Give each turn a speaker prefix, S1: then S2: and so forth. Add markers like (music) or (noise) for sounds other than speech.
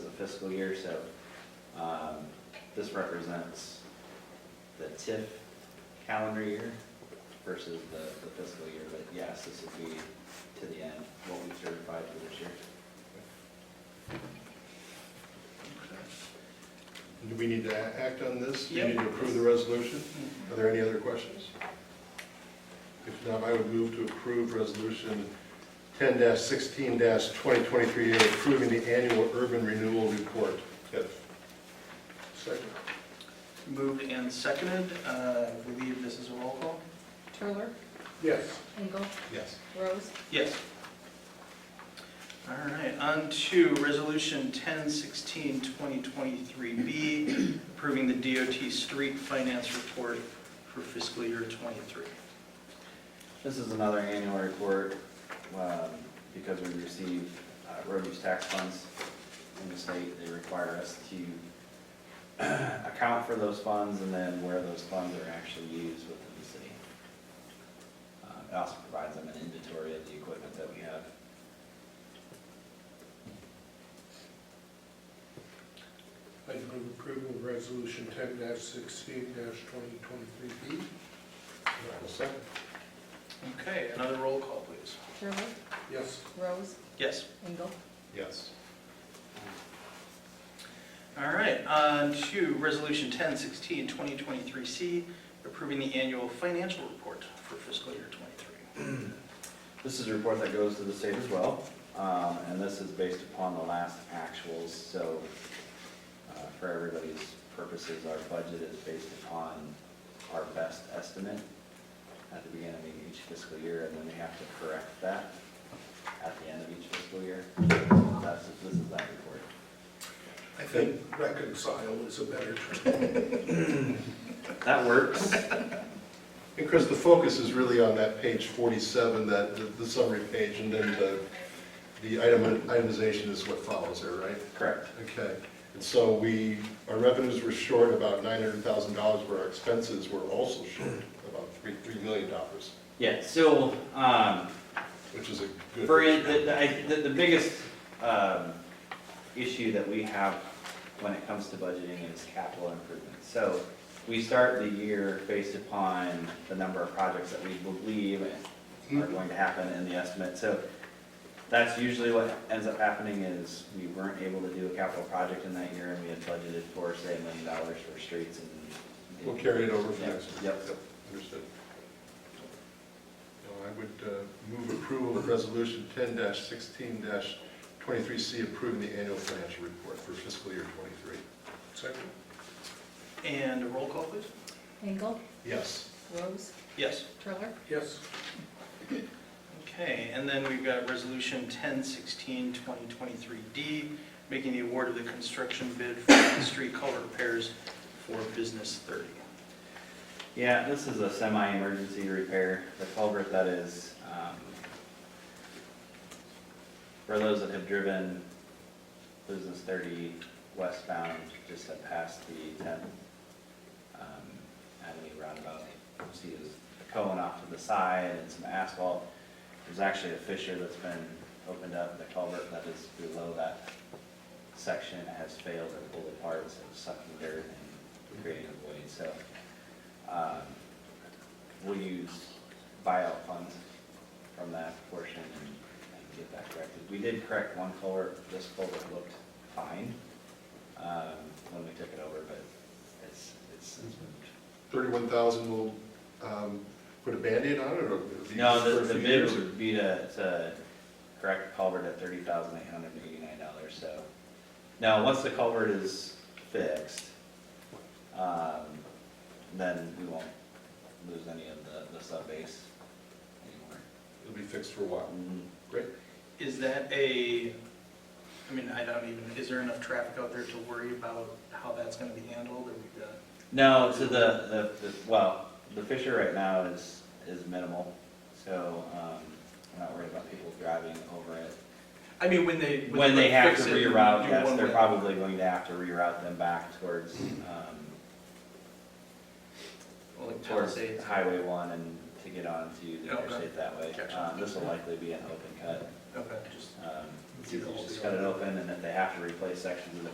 S1: fiscal year, so um, this represents the TIF calendar year versus the the fiscal year, but yes, this would be to the end, what we certified for this year.
S2: Do we need to a- act on this? Do you
S1: Yep.
S2: need to approve the resolution? Are there any other questions? If not, I would move to approve resolution ten sixteen twenty twenty-three A, approving the annual urban renewal report. Yes. Second.
S3: Moved and seconded, Uh, I believe this is a roll call?
S4: Turler,
S2: Yes.
S4: Engel,
S2: Yes.
S4: Rose,
S3: Yes. All right, on to Resolution 1016, 2023B, approving the DOT street finance report for fiscal year '23.
S1: This is another annual report, um, because we receive uh, road use tax funds in the state. They require us to (clears throat) account for those funds and then where those funds are actually used within the city. Uh, It also provides them an inventory of the equipment that we have.
S5: I'd move approval of resolution ten sixteen twenty twenty-three B.
S2: Second.
S3: Okay, another roll call, please.
S4: Turler,
S5: Yes.
S4: Rose,
S3: Yes.
S4: Engel,
S2: Yes.
S3: All right, on to Resolution 1016, 2023C, approving the annual financial report for fiscal year '23.
S1: This is a report that goes to the state as well, um, and this is based upon the last actuals, so uh, for everybody's purposes, our budget is based upon our best estimate at the beginning of each fiscal year, and then we have to correct that at the end of each fiscal year. That's, this is that report.
S5: I think reconcile is a better term.
S1: That works.
S2: And Chris, the focus is really on that page 47, that, the- the summary page, and then the, the item- itemization is what follows there, right?
S1: Correct.
S2: Okay, and so we, our revenues were short about nine hundred thousand dollars, where our expenses were also short about three, three million dollars,
S1: Yeah, so, um,
S2: which is a good.
S1: For, in- the, the, I- the- the biggest, um, issue that we have when it comes to budgeting is capital improvements. So we start the year based upon the number of projects that we believe are
S2: Hmm.
S1: going to happen in the estimate. So that's usually what ends up happening is we weren't able to do a capital project in that year and we had budgeted for, say, a million dollars for streets and.
S2: We'll carry it over for
S1: Yep,
S2: next year.
S1: yep.
S2: Understood. Now, I would uh, move approval of resolution ten sixteen twenty-three C, approving the annual financial report for fiscal year twenty-three.
S5: Second?
S3: And a roll call, please?
S4: Engel,
S2: Yes.
S4: Rose,
S3: Yes.
S4: Turler,
S5: Yes.
S3: Okay, and then we've got Resolution 1016, 2023D, making the award of the construction bid for the street color repairs for Business 30.
S1: Yeah, this is a semi-emergency repair, the culvert that is, um, for those that have driven Business thirty westbound, just up past the tenth, um, Avenue roundabout, you see there's a cone off to the side and some asphalt. There's actually a fissure that's been opened up, the culvert that is below that section has failed and pulled apart, so it's sucking dirt and creating a void, so um, We'll use buyout funds from that portion and and get that corrected. We did correct one culvert, this culvert looked fine um, when we took it over, but it's, it's since moved.
S2: Thirty-one thousand will, um, put a Band-Aid on it, or? it'll be
S1: No,
S2: for a
S1: the, the
S2: few
S1: bid
S2: years?
S1: would be to, to correct the culvert at thirty thousand eight hundred and eighty-nine dollars, so. Now, once the culvert is fixed, um, then we won't lose any of the, the sub base anymore.
S2: It'll be fixed for a while. Great.
S3: Is that a, I mean, I don't even, is there enough traffic out there to worry about how that's going to be handled? Or we got-
S1: No, so the, the, the- well, the fissure right now is, is minimal, so, um, I'm not worried about people driving over it.
S3: I mean, when they.
S1: When they have to
S3: fix it, you
S1: reroute,
S3: do
S1: yes,
S3: one
S1: they're
S3: way.
S1: probably going to have to reroute them back towards, um,
S3: Well, like
S1: towards
S3: Palisades.
S1: Highway one and to get onto the
S3: Okay.
S1: interstate that way.
S3: Gotcha.
S1: Um, this will likely be an open cut,
S3: Okay, just
S1: um,
S3: Do
S1: you
S3: the whole
S1: just
S3: thing.
S1: cut it open, and if they have to replace sections of the